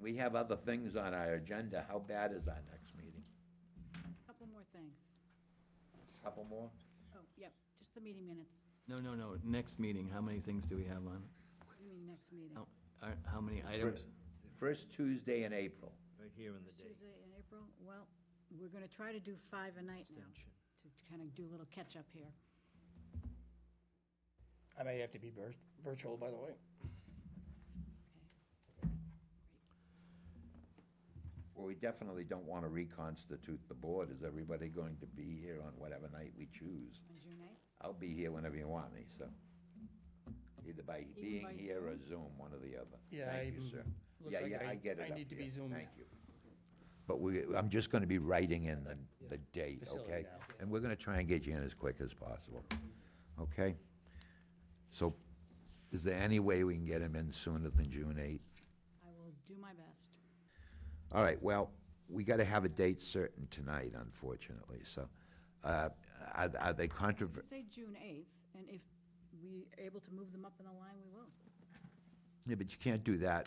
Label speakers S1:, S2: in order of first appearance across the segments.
S1: we have other things on our agenda. How bad is our next meeting?
S2: Couple more things.
S1: Couple more?
S2: Oh, yep, just the meeting minutes.
S3: No, no, no, next meeting, how many things do we have on?
S2: You mean next meeting?
S3: How- are- How many items?
S1: First Tuesday in April.
S4: Right here in the
S2: First
S4: day.
S2: Tuesday in April? Well, we're going to try to do five a night now, to kind of do a little catch-up here.
S5: I may have to be vir- virtual, by the way.
S1: Well, we definitely don't want to reconstitute the board. Is everybody going to be here on whatever night we choose?
S2: On June eighth?
S1: I'll be here whenever you want me, so. Either by
S2: Even
S1: being
S2: by
S1: here or Zoom, one or the other.
S5: Yeah,
S1: Thank you,
S5: I'm-
S1: sir.
S5: looks
S1: Yeah,
S5: like
S1: yeah,
S5: I-
S1: I get it
S5: I
S1: up
S5: need to be
S1: here.
S5: Zoomed.
S1: Thank you. But we, I'm just gonna be writing in the, the date,
S5: Facility
S1: okay?
S5: now.
S1: And we're gonna try and get you in as quick as possible, okay? So, is there any way we can get him in sooner than June eighth?
S2: I will do my best.
S1: All right, well, we gotta have a date certain tonight, unfortunately, so, uh, are, are they controver,
S2: Say June eighth, and if we are able to move them up in the line, we will.
S1: Yeah, but you can't do that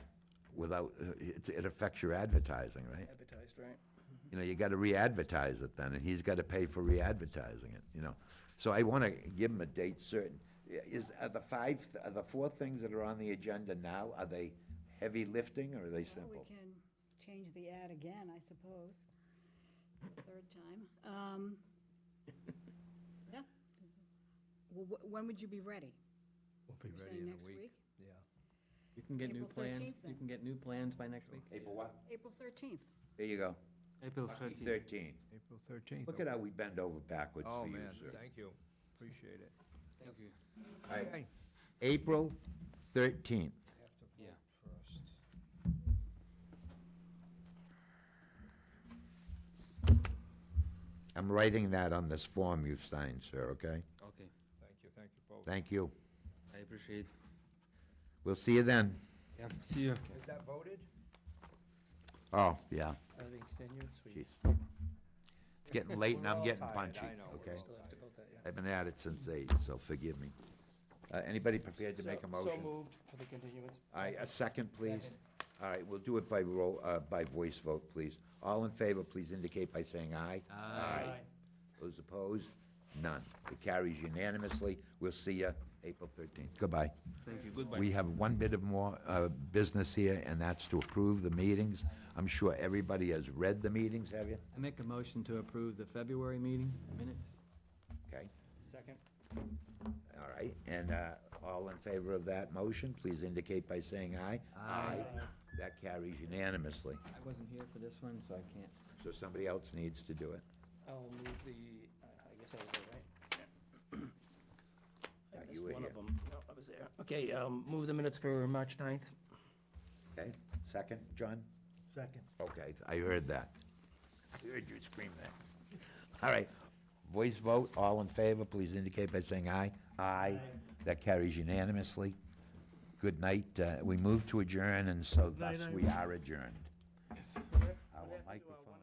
S1: without, uh, it it affects your advertising, right?
S5: Advertised, right?
S1: You know, you gotta re-advertise it then, and he's gotta pay for re-advertising it, you know? So I wanna give him a date certain. Yeah, Is, are the five, are the four things that are on the agenda now, are they heavy lifting, or are they
S2: Well,
S1: simple?
S2: We can change the ad again, I suppose, for the third time. Um, Yeah. Well, wh- When would you be ready?
S4: We'll be
S2: You're
S4: ready
S2: saying
S4: in
S2: next
S4: a week.
S2: week?
S4: Yeah.
S3: You can get new
S2: April
S3: plans,
S2: 13th
S3: you
S2: then.
S3: can get new plans by next week?
S1: April what?
S2: April thirteenth.
S1: There you go.
S3: April
S1: Lucky Thirteen.
S4: April thirteenth.
S1: Look at how we bend over backwards
S4: Oh,
S1: for you,
S4: man,
S1: sir.
S4: thank you. Appreciate it.
S3: Thank you.
S1: All right,
S4: Okay.
S1: April thirteenth.
S3: Yeah.
S1: I'm writing that on this form you've signed, sir, okay?
S3: Okay,
S4: Thank you, thank you both.
S1: Thank you.
S3: I appreciate.
S1: We'll see you then.
S3: Yeah, see you.
S4: Is that voted?
S1: Oh, yeah.
S5: Are they continuance? We
S1: Jeez. It's getting late and
S4: We're
S1: I'm
S4: all
S1: getting
S4: tired,
S1: punchy,
S4: I know, we're
S1: okay?
S4: all
S5: still have to vote that, yeah.
S1: I've been at it since eight, so forgive me. Uh, Anybody prepared to make a
S5: So-
S1: motion?
S5: So moved for the continuance.
S1: All right, a second, please. All right, we'll do it by roll, uh, by voice vote, please. All in favor, please indicate by saying aye.
S5: Aye.
S1: Those opposed? None. It carries unanimously. We'll see you April 13th. Goodbye.
S3: Thank you, goodbye.
S1: We have one bit of more uh, business here, and that's to approve the meetings. I'm sure everybody has read the meetings, have you?
S3: I make a motion to approve the February meeting minutes?
S1: Okay,
S5: Second.
S1: all right. And uh, all in favor of that motion, please indicate by saying aye.
S3: Aye.
S5: Uh,
S1: That carries unanimously.
S3: I wasn't here for this one, so I can't.
S1: So somebody else needs to do it.
S5: I'll move the, uh, I guess I was there, right?
S1: Yeah,
S5: I
S1: you
S5: missed
S1: were
S5: one of
S1: here.
S5: them. No, I was there. Okay, um, move the minutes for March 9th.
S1: Okay, second, John?
S5: Second.
S1: Okay, I heard that. I heard you scream that. All right, voice vote, all in favor, please indicate by saying aye. Aye. That carries unanimously. Good night, Uh, we move to adjourn, and so thus we are adjourned. Our microphone